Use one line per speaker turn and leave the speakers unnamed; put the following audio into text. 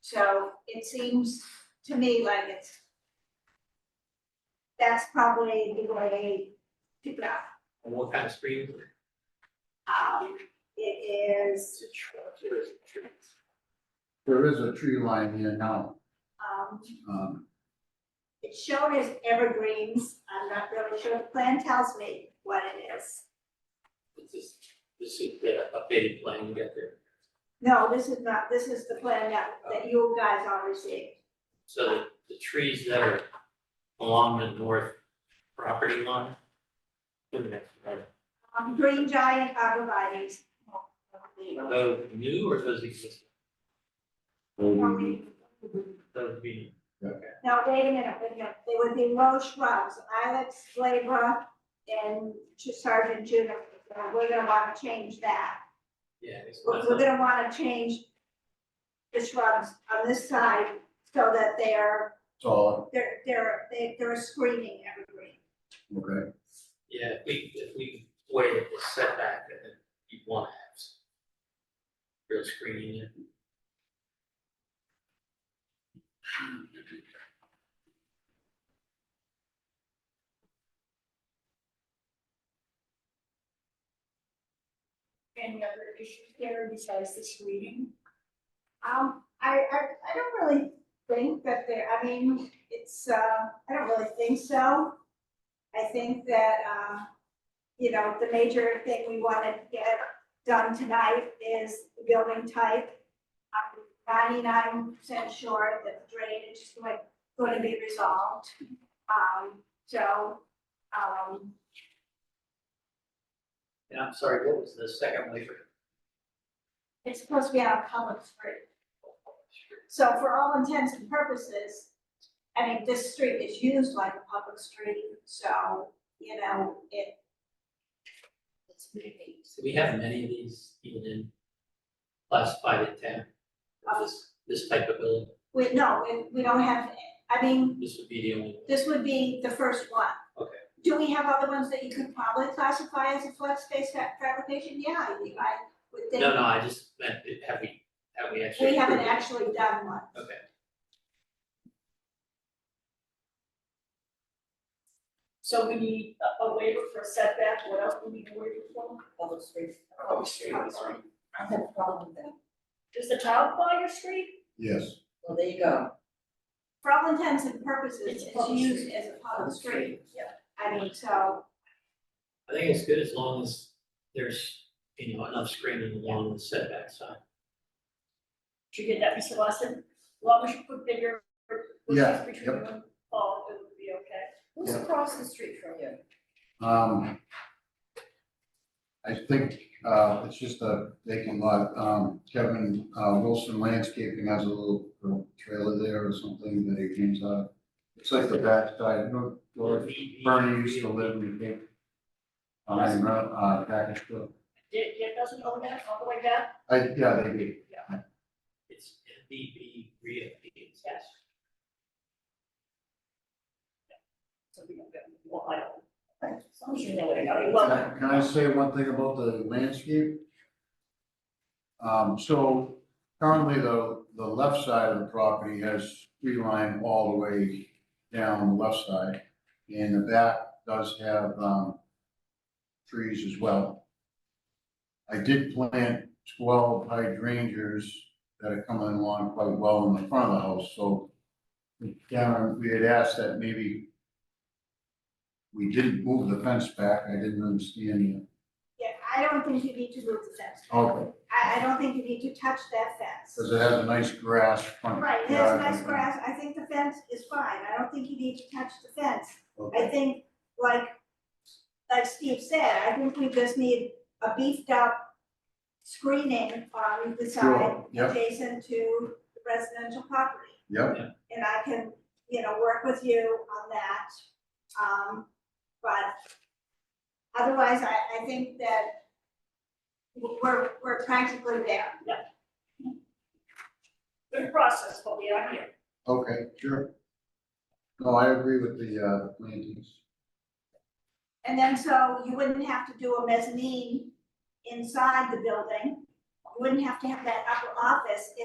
So it seems to me like it's. That's probably the way to go.
And what kind of screen?
Um, it is,
There is a tree line here now,
um,
um,
it showed as evergreens. I'm not really sure. The plan tells me what it is.
This is, this is the updated plan you got there.
No, this is not, this is the plan that, that you guys all received.
So the, the trees that are along the north property line. look at that, right?
Um, green giant arborvitae's.
Are those new or those existing?
Well,
Um,
we-
Those being,
Now, wait a minute, wait a minute. They would be low shrubs, ilex glabra and to Sergeant juniper. So We're gonna wanna change that.
yeah, it's.
We're, we're gonna wanna change the shrubs on this side so that they're,
tall,
they're, they're, they- they're screening evergreen.
okay,
Yeah, if we, if we waited the setback, then you'd want to have some real screening in.
Any other issues there besides this reading?
Um, I, I, I don't really think that there, I mean, it's, uh, I don't really think so. I think that, uh, you know, the major thing we wanna get done tonight is the building type. I'm ninety-nine percent sure that the drainage is going, gonna be resolved. Um, so, um,
And I'm sorry, what was the second waiver?
it's supposed to be on a column three. So for all intents and purposes, I mean, this street is used like a public street, so, you know, it,
It's maybe.
Do we have many of these even in classified in town? This, this type of building,
we, no, we, we don't have, I mean,
this would be the only one.
this would be the first one.
Okay.
Do we have other ones that you could probably classify as a flex space fa- fabrication? Yeah, I think I would think.
No, no, I just meant, it- have we, have we actually?
We haven't
approved it?
actually done one.
Okay.
So we need a- a waiver for setback, what else do we need a waiver for?
Public streets.
Public
street, right. I have a problem with that.
Does the town buy your street?
yes,
Well, there you go.
For all intents and purposes,
It's a
it's
public
used
street.
as a public street.
Yeah.
I mean, so,
I think it's good as long as there's, you know, enough screening along the setback side.
Should we get that, Mr. Lawson? Well, we should put bigger.
Yeah,
Between
yep.
them, oh, it would be okay.
Who's
Yeah.
across the street from you?
um. I think, uh, it's just a vacant lot, um, Kevin, uh, Wilson Landscaping has a little uh, trailer there or something that he cleans up. It's like the backside, no, or Bernie used to live in the. Behind, uh, package store,
It, it doesn't own that all the way down?
I, yeah, they did,
It's MBB reappeals.
Yes. So we don't get, well, I don't,
Thanks.
as long as you know what I got, you
Can
love it.
I- can I say one thing about the landscape? Um, so currently the, the left side of the property has tree line all the way down the left side. And the back does have, um, trees as well. I did plant twelve hydrangeas that are coming along quite well in the front of the house, so Karen, we had asked that maybe we didn't move the fence back, I didn't understand
yeah, I don't think you need to move the fence.
Oh.
that. Okay.
I, I don't think you need to touch that fence.
Because it has a nice grass front.
Right, it has
yard.
nice grass, I think the fence is fine, I don't think you need to touch the fence. I
Okay,
think, like, like Steve said, I think we just need a beefed up screening on the side
Sure, yep.
adjacent to the residential property.
Yep,
And I can, you know, work with you on that, um, but otherwise, I, I think that we're, we're practically there.
Good process, but we are here.
okay, sure. No, I agree with the, uh, plantings.
And then so you wouldn't have to do a mezzanine inside the building. You wouldn't have to have that upper office